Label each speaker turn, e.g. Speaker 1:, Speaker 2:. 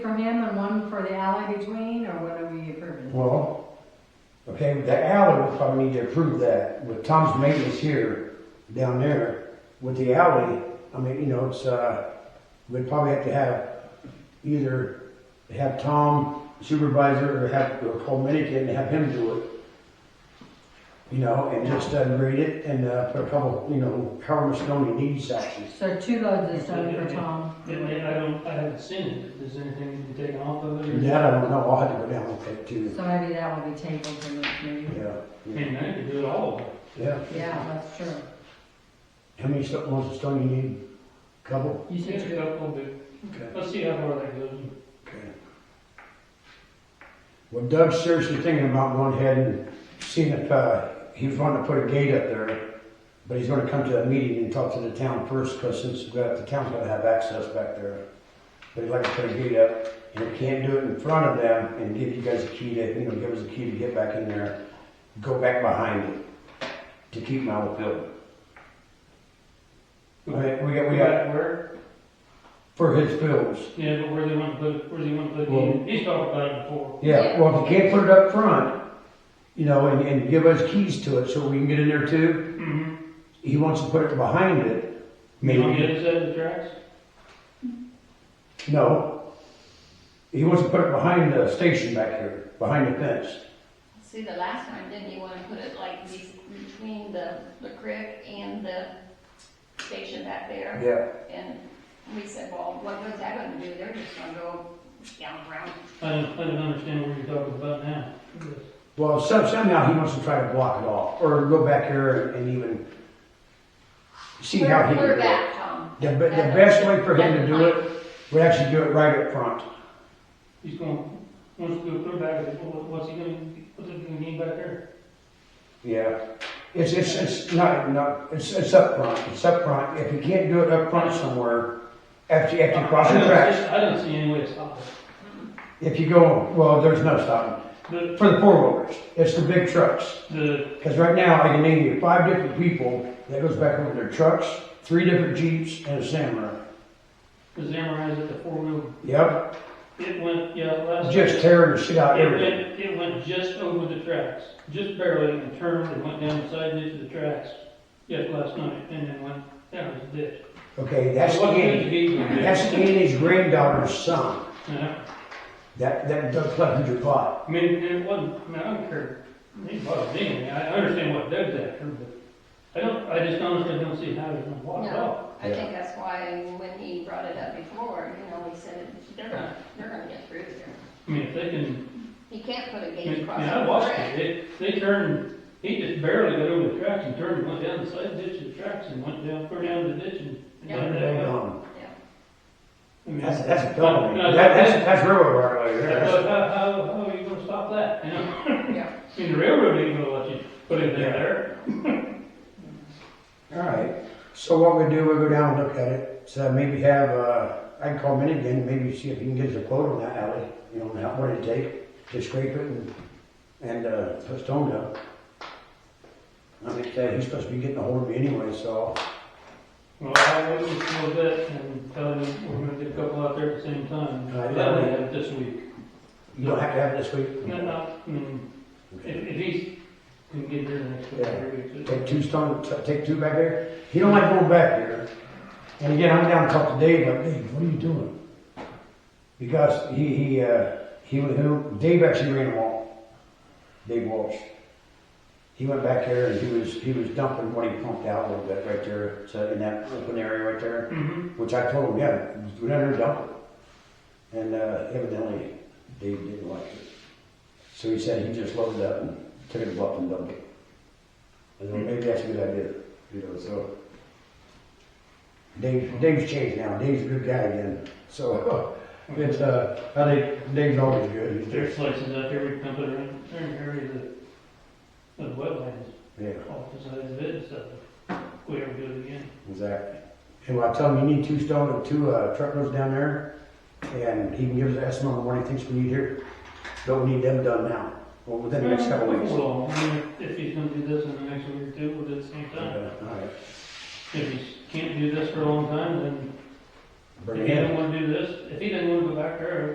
Speaker 1: for him and one for the alley between, or what are we approving?
Speaker 2: Well, okay, the alley would probably need to approve that, with Tom's maintenance here, down there, with the alley, I mean, you know, it's, uh, we'd probably have to have either have Tom supervisor or have, or call Medicaid and have him do it. You know, and just uh, grade it and, uh, put a couple, you know, however much stone he needs actually.
Speaker 1: So two loads of stone for Tom.
Speaker 3: Yeah, I I don't, I haven't seen it, is there anything you can take off of it? or-
Speaker 2: That I don't know, I'll have to go down and take too,
Speaker 1: So maybe that will be tabled for next meeting.
Speaker 2: yeah,
Speaker 3: I mean, I could do it all,
Speaker 2: yeah.
Speaker 1: Yeah, that's true.
Speaker 2: How many sto- loads of stone you need? Couple?
Speaker 1: You
Speaker 3: take
Speaker 1: said
Speaker 3: a
Speaker 1: two.
Speaker 3: couple, but
Speaker 2: Okay.
Speaker 3: let's see how far that goes.
Speaker 2: Okay. Well, Doug's seriously thinking about going ahead and seeing if, uh, he was wanting to put a gate up there, but he's gonna come to a meeting and talk to the town first, cause since we've got, the town's gonna have access back there. But he'd like to put a gate up, and if he can't do it in front of them, and give you guys a key to, you know, give us a key to get back in there, go back behind it, to keep them out of the building. Okay, we got, we got,
Speaker 3: Where,
Speaker 2: for his fields,
Speaker 3: yeah, but where they want to put, it- where they want to put it,
Speaker 2: Well-
Speaker 3: in. he's talked about it before.
Speaker 2: Yeah, well, if you can't put it up front, you know, and, and give us keys to it so we can get in there too,
Speaker 3: Mm-hmm.
Speaker 2: he wants to put it behind it.
Speaker 3: You want to
Speaker 2: Maybe,
Speaker 3: get us out of the tracks?
Speaker 2: no. He wants to put it behind the station back here, behind the fence.
Speaker 4: See, the last time, didn't you want to put it like be- between the, the creek and the station back there?
Speaker 2: Yeah.
Speaker 4: And we said, well, what was that gonna do? They're just gonna go down around.
Speaker 3: I don't, I don't understand what you're talking about now.
Speaker 2: Well, some, somehow he wants to try to block it off, or go back here and even see how he can do
Speaker 4: We're
Speaker 2: it.
Speaker 4: back, Tom.
Speaker 2: The, be- the best way for him to do it, would actually do it right up front.
Speaker 3: He's going, wants to put it back, what- what's he gonna, what's he gonna need back there?
Speaker 2: Yeah, it's, it's, it's not, not, it's, it's up front, it's up front, if you can't do it up front somewhere, after, after you cross
Speaker 3: I
Speaker 2: the
Speaker 3: don't-
Speaker 2: tracks,
Speaker 3: I don't see any way to stop it,
Speaker 2: if you go, well, there's no stopping.
Speaker 3: but
Speaker 2: For the four wheelers, it's the big trucks,
Speaker 3: the,
Speaker 2: cause right now, I can name you five different people that goes back over their trucks, three different Jeeps and a Samurai.
Speaker 3: the Zamorans at the four wheel,
Speaker 2: Yep,
Speaker 3: it went, yeah, last.
Speaker 2: just tearing the shit out of
Speaker 3: It
Speaker 2: everything.
Speaker 3: went, it went just over the tracks, just barely, and turned and went down the side ditch of the tracks, just last night, and then went down the ditch.
Speaker 2: Okay, that's
Speaker 3: What good
Speaker 2: Kenny,
Speaker 3: gate was it?
Speaker 2: that's Kenny's granddaughter's son,
Speaker 3: Yeah.
Speaker 2: that, that Doug Clevenger bought.
Speaker 3: Uh-huh. I mean, it wasn't, I mean, I don't care, they bought it anyway, I I understand what Doug's after, but I don't, I just honestly don't see how it's gonna walk off.
Speaker 4: No, I think that's why when he brought it up before, you know, he said, they're gonna, they're gonna get through here.
Speaker 3: I mean, if they can,
Speaker 4: He can't put a
Speaker 3: I
Speaker 4: gate
Speaker 3: mean,
Speaker 4: across
Speaker 3: I
Speaker 4: the
Speaker 3: watched
Speaker 4: creek.
Speaker 3: it, they, they turned, he just barely got over the tracks and turned and went down the side ditch of the tracks and went down, far down the ditch and.
Speaker 4: Yeah.
Speaker 3: down that
Speaker 2: Hang
Speaker 3: way.
Speaker 2: on.
Speaker 4: Yeah.
Speaker 3: I mean,
Speaker 2: That's, that's a
Speaker 3: No,
Speaker 2: felony.
Speaker 3: no,
Speaker 2: That, that's, that's railroad right there.
Speaker 3: How,
Speaker 2: That's-
Speaker 3: how, how are you gonna stop that, you know?
Speaker 4: Yeah.
Speaker 3: I mean, the railroad ain't gonna let you put it in there.
Speaker 2: All right. So what we do, we go down and look at it. So maybe have, uh, I can call Minigan, maybe see if he can get us a quote on that alley, you know, how, what it'd take to scrape it and, and, uh, put stone down. I mean, uh, he's supposed to be getting a hold of me anyway, so,
Speaker 3: Well, I wouldn't feel that and tell them we're gonna get a couple out there at the same time.
Speaker 2: Right.
Speaker 3: That way, uh, this week.
Speaker 2: you don't have to have it this week?
Speaker 3: No, no, I mean, if, if he's, can get here next couple
Speaker 2: Yeah.
Speaker 3: three weeks.
Speaker 2: Take two stone, t- take two back there? He don't like going back there. And again, I'm down and talked to Dave, like, Dave, what are you doing? Because he, he, uh, he, went- who, Dave actually ran a wall. Dave Walsh. He went back there and he was, he was dumping what he pumped out a little bit right there, so in that open area right there,
Speaker 3: Mm-hmm,
Speaker 2: which I told him, yeah, go down there and dump it. And, uh, evidently, Dave didn't like it. So he said he just loaded up and took it up and dumped it. And then maybe that's a good idea, you know, so. Dave, Dave's changed now, Dave's a good guy again, so, it's, uh, I think Dave's always good, he's
Speaker 3: there's
Speaker 2: just,
Speaker 3: places out there we can put it in, there in area that, of wetlands,
Speaker 2: yeah,
Speaker 3: off the side of it, so, if we ever do it again.
Speaker 2: exactly. And I tell him, you need two stone and two, uh, truckloads down there, and he can give us an estimate on what he thinks we need here, but we need them done now, or within the next
Speaker 3: Mm-hmm.
Speaker 2: couple of weeks.
Speaker 3: Well, I mean, if he's gonna do this in the next week or two, we'll do it at the same time.
Speaker 2: Uh, all right.
Speaker 3: If he can't do this for a long time, then
Speaker 2: Bring
Speaker 3: if
Speaker 2: it
Speaker 3: he
Speaker 2: in.
Speaker 3: doesn't want to do this, if he doesn't want to go back there,